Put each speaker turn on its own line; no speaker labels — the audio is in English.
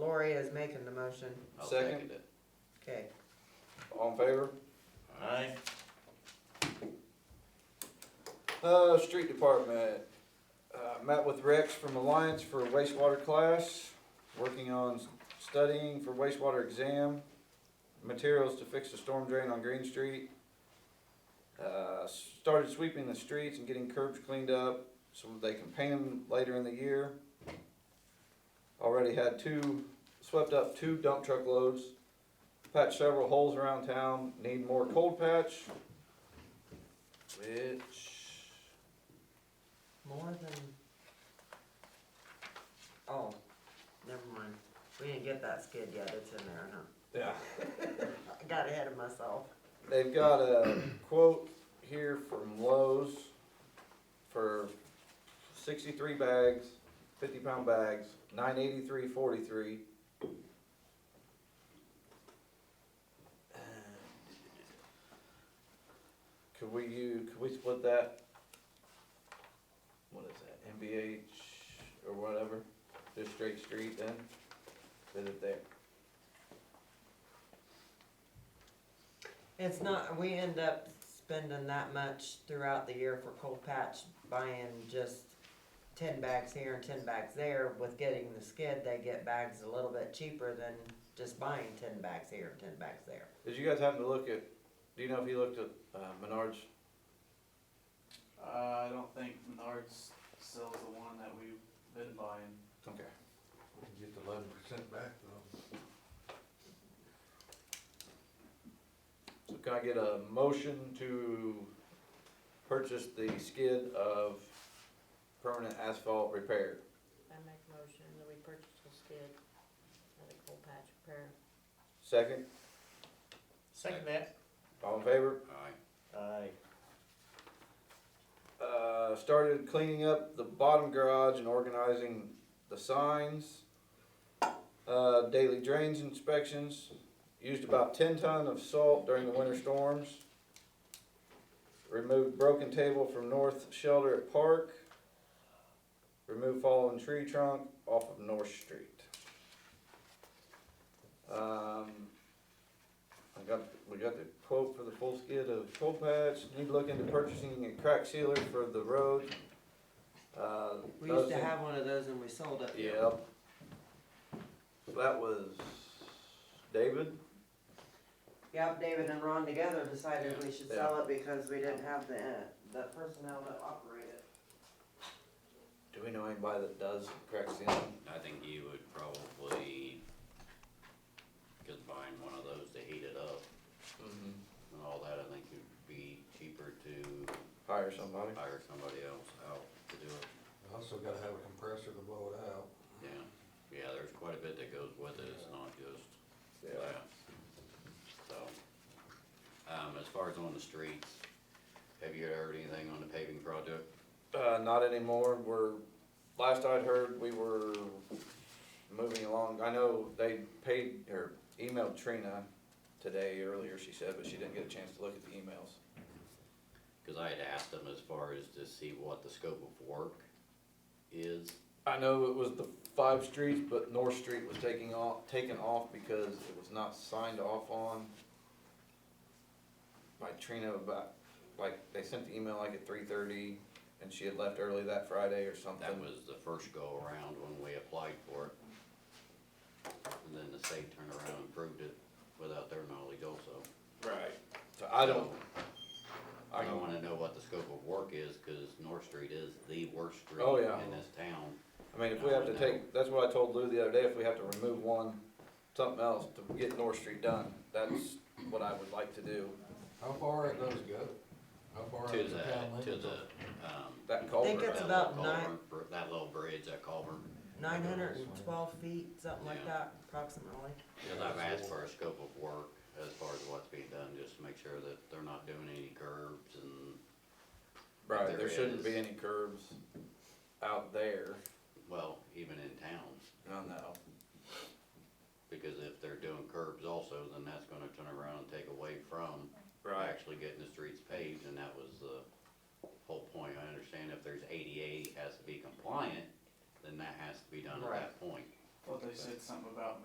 Gloria is making the motion.
I'll
Second.
second it.
Okay.
All in favor?
Aye.
Uh, street department, uh, met with Rex from Alliance for wastewater class, working on studying for wastewater exam, materials to fix the storm drain on Green Street. Uh, started sweeping the streets and getting curbs cleaned up so they can paint them later in the year. Already had two, swept up two dump truck loads, patched several holes around town, need more cold patch, which
More than. Oh, never mind. We didn't get that skid yet. It's in there, huh?
Yeah.
I got ahead of myself.
They've got a quote here from Lowe's for sixty-three bags, fifty-pound bags, nine eighty-three forty-three. Could we use, could we split that? What is that, MBH or whatever, just straight street then? Is it there?
It's not, we end up spending that much throughout the year for cold patch, buying just ten bags here and ten bags there. With getting the skid, they get bags a little bit cheaper than just buying ten bags here and ten bags there.
Did you guys happen to look at, do you know if you looked at uh, Menards?
Uh, I don't think Menards sells the one that we've been buying.
Okay.
Get the eleven percent back though.
So can I get a motion to purchase the skid of permanent asphalt repair?
I make a motion that we purchase a skid at a coal patch repair.
Second,
Second that.
all in favor?
Aye.
Aye.
Uh, started cleaning up the bottom garage and organizing the signs. Uh, daily drains inspections, used about ten ton of salt during the winter storms. Removed broken table from north shelter at park. Removed fallen tree trunk off of North Street. Um, I got, we got the quote for the full skid of coal patch, need to look into purchasing a crack sealer for the road. Uh,
We
those
used to
things-
have one of those and we sold it.
Yep. That was David?
Yep, David and Ron together decided we should sell
Yeah.
it because we didn't have the, the personnel to operate it.
Do we know anybody that does crack ceiling?
I think you would probably combine one of those to heat it up
Mm-hmm.
and all that. I think it'd be cheaper to
Hire somebody?
hire somebody else out to do it.
Also gotta have a compressor to blow it out.
Yeah, yeah, there's quite a bit that goes with it, it's not just that. So, um, as far as on the streets, have you heard anything on the paving project?
Uh, not anymore, we're, last I'd heard, we were moving along, I know they paid, or emailed Trina today earlier, she said, but she didn't get a chance to look at the emails.
Cause I had asked them as far as to see what the scope of work is.
I know it was the five streets, but North Street was taking off, taken off because it was not signed off on by Trina about, like, they sent the email like at three thirty and she had left early that Friday or something.
That was the first go around when we applied for it. And then the state turned around and approved it without their knowledge also.
Right. So I don't, I
I
don't,
wanna know what the scope of work is, cause North Street is the worst street
Oh, yeah.
in this town.
I mean, if we have to take, that's what I told Lou the other day, if we have to remove one, something else to get North Street done, that's what I would like to do.
How far it does go? How far
To
out of the town
the, to
limits?
the, um.
That
culvert,
culvert.
Think it's
that
about
little
nine-
culvert, br- That little bridge, that culvert,
Nine hundred and twelve feet, something like
Yeah.
that approximately.
cause I've asked for a scope of work as far as what's being done, just to make sure that they're not doing any curbs and,
Right,
there
there shouldn't be
is-
any curbs out there,
well, even in town.
I know.